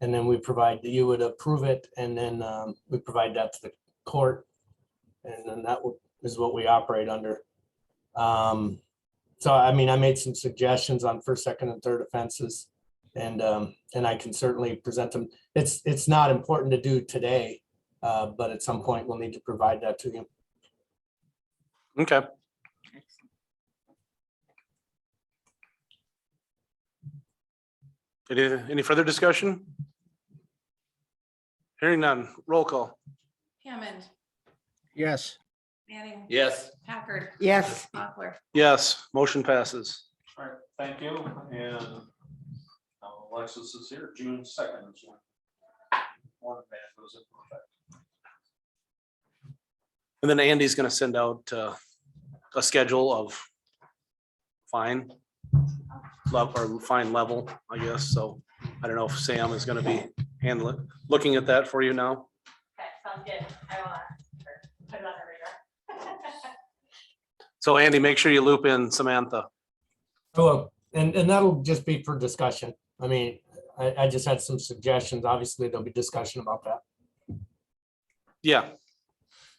And then we provide, you would approve it and then um, we provide that to the court. And then that would- is what we operate under. Um, So I mean, I made some suggestions on first, second and third offenses. And um, and I can certainly present them. It's it's not important to do today. uh, But at some point, we'll need to provide that to you. Okay. Any, any further discussion? Hearing none, roll call. Hammond, Yes. Manning, Yes. Packard, Yes, Mochler. Yes, motion passes. All right, thank you, and uh, Alexis is here, June second is when. One man goes into effect. And then Andy's gonna send out uh, a schedule of fine love or fine level, I guess. So I don't know if Sam is gonna be handling, looking at that for you now. That sounds good. I will uh, put it on the radar. So Andy, make sure you loop in Samantha. Hello, um, and, and that'll just be for discussion. I mean, I, I just had some suggestions. Obviously, there'll be discussion about that. Yeah,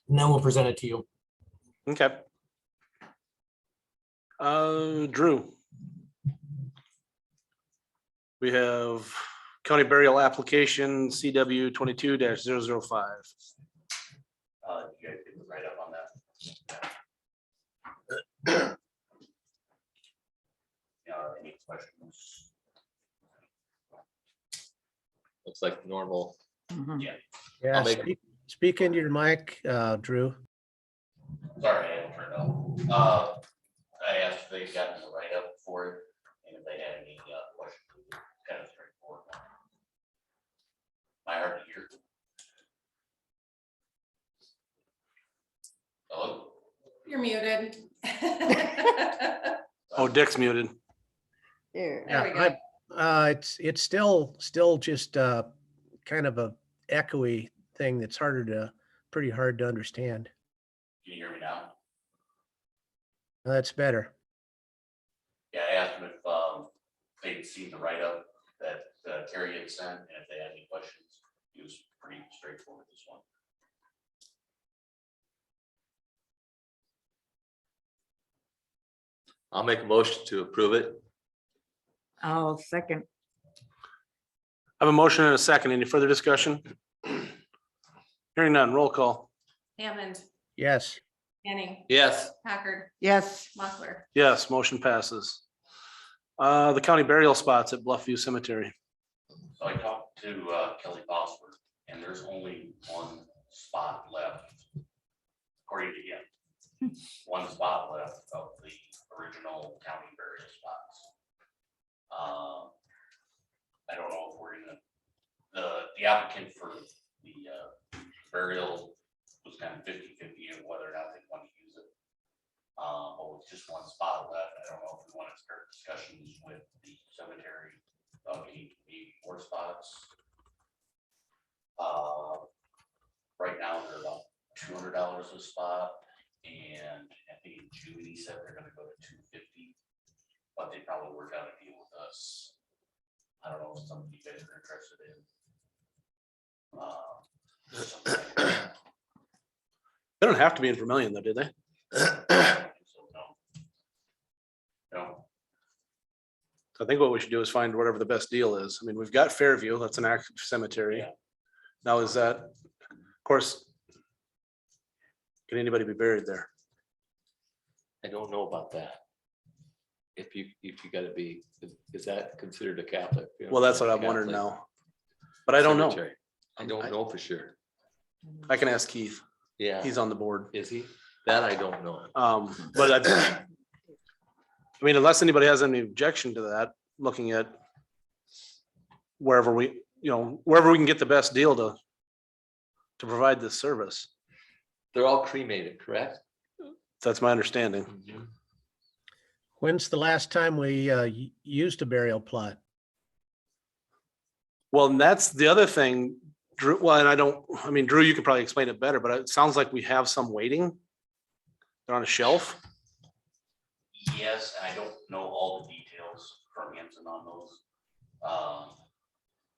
And then we'll present it to you. okay. Uh, Drew. We have county burial application CW twenty-two 5 Uh, you guys did right up on that. Uh, any questions? Looks like normal. Mhm. Yeah. make- speak- Speak into your mic, uh, Drew. Sorry, I didn't turn it off. Uh, I asked if they'd gotten the write-up for it and if they had any uh, questions. Kind of straightforward. My hard to hear. Hello? You're muted. Oh, Dick's muted. there. There we Yeah, go. I- Uh, it's, it's still, still just, uh, kind of a echoey thing that's harder to, pretty hard to understand. Can you hear me now? That's better. Yeah, I asked them if um, they'd seen the write-up that uh, Terry had sent, and if they had any questions. He was pretty straightforward with this one. I'll make a motion to approve it. I'll second. I have a motion and a second. Any further discussion? Hearing none, roll call. Hammond, Yes. Manning, Yes. Packard, Yes, Mochler. Yes, motion passes. Uh, the county burial spots at Bluffview Cemetery. So I talked to uh, Kelly Bosworth, and there's only one spot left. According to him, one spot left of the original county burial spots. Um, I don't know if we're gonna, the, the applicant for the uh, burial was kind of 50-50 of whether or not they want to use it. Um, but with just one spot left, I don't know if we want to start discussions with the cemetery uh, we need, we need more spots. Uh, right now, they're about two hundred dollars a spot, and I think in June, he said they're gonna go to two fifty. But they probably work out a deal with us. I don't know if some of you guys are interested in. uh, something like that. They don't have to be in Vermillion though, do they? So, no. No, I think what we should do is find whatever the best deal is. I mean, we've got Fairview, that's an active cemetery. Yeah. Now is that, of course, can anybody be buried there? I don't know about that. If you, if you gotta be, is- is that considered a Catholic? Well, that's what I'm wondering now. But I don't know. Cemetery. I don't know for sure. I can ask Keith. Yeah, He's on the board. is he? That I don't know. Um, but I, I mean, unless anybody has any objection to that, looking at wherever we, you know, wherever we can get the best deal to to provide this service. They're all cremated, correct? That's my understanding. When's the last time we, uh, y- used a burial plot? Well, and that's the other thing, Drew, well, and I don't, I mean, Drew, you could probably explain it better, but it sounds like we have some waiting. They're on a shelf. Yes, and I don't know all the details from Hanson on those. Um,